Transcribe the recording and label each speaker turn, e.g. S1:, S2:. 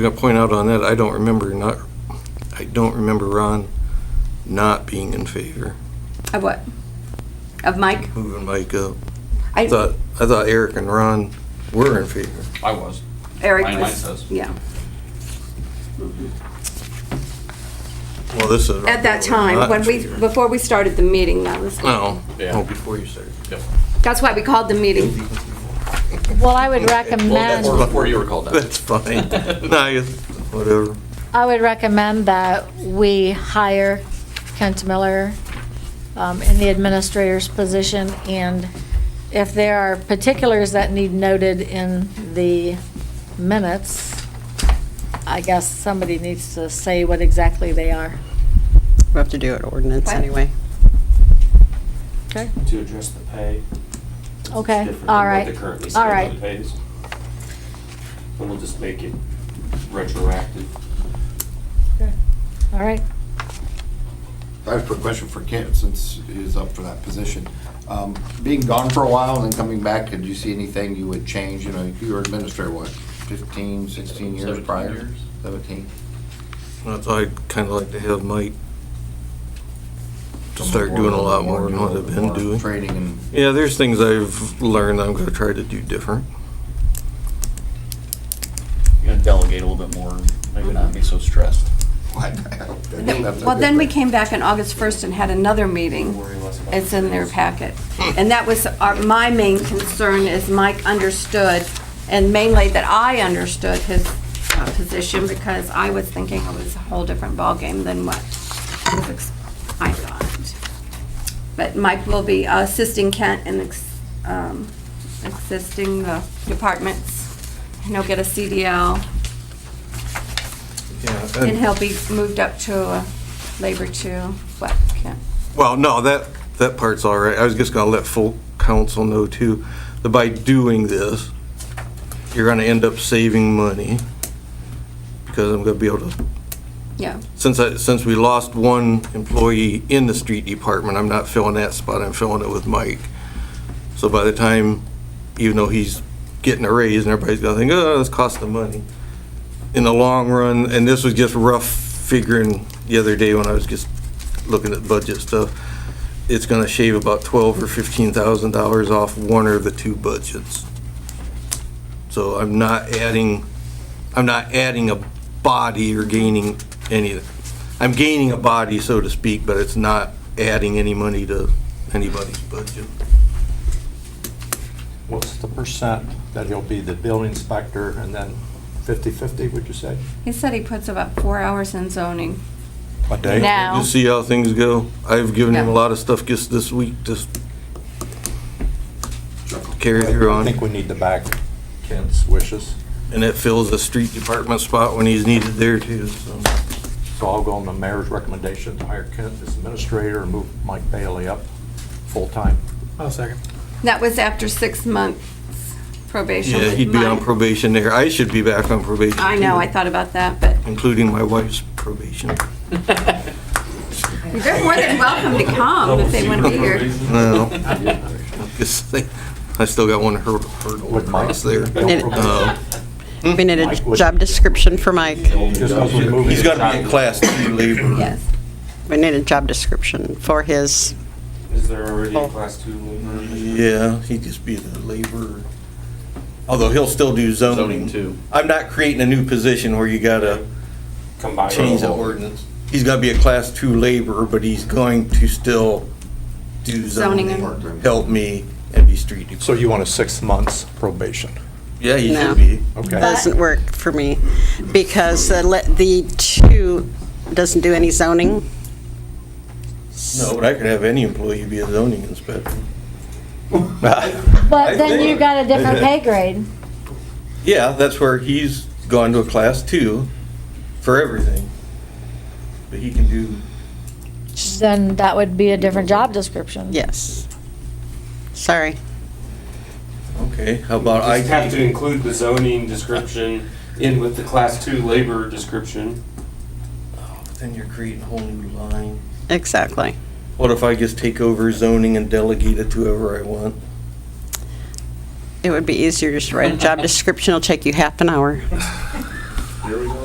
S1: going to point out on that, I don't remember not, I don't remember Ron not being in favor
S2: Of what? Of Mike?
S1: of moving Mike up. I
S2: I,
S1: thought, I thought Eric and Ron were in favor.
S3: I was.
S2: Eric
S3: Mine- mine says.
S2: was, yeah.
S1: Well, this is.
S2: At that
S1: Not
S2: time,
S1: in
S2: when we,
S1: favor.
S2: before we started the meeting, that was,
S1: No,
S3: Yeah.
S1: no, Oh, before you started.
S3: Yep.
S2: that's why we called the meeting.
S4: Well, I would
S3: Well,
S4: recommend,
S3: before, before you were called out.
S1: That's fine. No, you- whatever.
S4: I would recommend that we hire Kent Miller um, in the administrator's position, and if there are particulars that need noted in the minutes, I guess somebody needs to say what exactly they are.
S5: We have to do it ordinance
S2: What?
S5: anyway.
S4: Okay.
S6: to address the pay. It's
S4: Okay,
S6: different than
S4: all
S6: what
S4: right,
S6: the currently
S4: all right.
S6: scheduled pays. And we'll just make it retroactive.
S4: All right.
S7: I have a quick question for Kent, since he's up for that position. Um, Being gone for a while and then coming back, did you see anything you would change? You know, you were administrator, what, 15, 16 years
S3: 17
S7: prior?
S3: years.
S7: 17?
S1: That's why I'd kind of like to have Mike to start doing a lot more than what I've been
S7: More
S1: doing.
S7: Training and,
S1: Yeah, there's things I've learned I'm going to try to do different.
S3: You're gonna delegate a little bit more, maybe not be so stressed.
S7: I hope that- that's a
S2: Well,
S7: good
S2: then we
S7: thing.
S2: came back on August 1st and had another meeting.
S6: Worry less about
S2: It's in their
S6: things.
S2: packet. And that was our, my main concern is Mike understood, and mainly that I understood his uh, position because I was thinking it was a whole different ballgame than what was ex- I thought. But Mike will be assisting Kent in ex- um, assisting the departments, and he'll get a CDL,
S1: Yeah.
S2: and he'll be moved up to a labor two, what, Kent?
S1: Well, no, that, that part's all right. I was just gonna let full council know too, that by doing this, you're gonna end up saving money. Because I'm gonna be able to,
S2: Yeah,
S1: since I, since we lost one employee in the street department, I'm not filling that spot, I'm filling it with Mike. So by the time, even though he's getting a raise and everybody's gonna think, oh, this cost the money. In the long run, and this was just rough figuring the other day when I was just looking at budget stuff, it's gonna shave about twelve or fifteen thousand dollars off one or the two budgets. So I'm not adding, I'm not adding a body or gaining any, I'm gaining a body, so to speak, but it's not adding any money to anybody's budget.
S8: What's the percent that he'll be the building inspector and then 50/50, would you say?
S2: he said he puts about four hours in zoning.
S8: A day?
S4: Now,
S1: Just see how things go. I've given him a
S2: Yeah.
S1: lot of stuff just this week, just carry through
S8: I
S1: on.
S8: think we need to back Kent's wishes,
S1: And it fills the street department spot when he's needed there too, so.
S8: so I'll go on the mayor's recommendation to hire Kent as administrator and move Mike Bailey up full-time.
S2: That was after six months probation.
S1: Yeah, he'd be on
S2: Mine-
S1: probation there. I should be back on probation.
S2: I know, I
S1: too,
S2: thought about that, but
S1: Including my wife's probation.
S2: they're more than welcome to come if they want to be here.
S1: No. Just think, I still got one hur- hurdle
S8: Would Mike-
S1: across there. Uh,
S8: No
S5: Did-
S8: probation.
S5: We need a
S8: Mike would-
S5: job description for Mike.
S8: Just as we move-
S1: He's gotta be in class two labor.
S2: Yes.
S5: We need a job description for his,
S6: Is there already
S5: Oh.
S6: a class two labor?
S1: Yeah, he'd just be the laborer. Although he'll still do zoning.
S3: Zoning too.
S1: I'm not creating a new position where you gotta
S6: Combined.
S1: change the ordinance. He's gotta be a class two laborer, but he's going to still do
S2: Zoning
S1: zoning,
S7: and-
S1: help me and be street department.
S8: So you want a six months probation?
S1: Yeah, he
S5: No.
S1: should be.
S8: Okay.
S5: doesn't work for me, because the le- the two doesn't do any zoning.
S1: No, but I could have any employee be a zoning inspector.
S4: but then you got a different pay grade.
S1: Yeah, that's where he's gone to a class two for everything. But he can do,
S4: Then that would be a different job description.
S5: Yes. Sorry.
S1: okay, how about
S6: Just have to
S1: IT?
S6: include the zoning description in with the class two labor description.
S1: Oh, but Then you're creating a whole new line.
S5: Exactly.
S1: What if I just take over zoning and delegate it to whoever I want?
S5: It would be easier just to write a job description. It'll take you half an hour.
S6: There we go.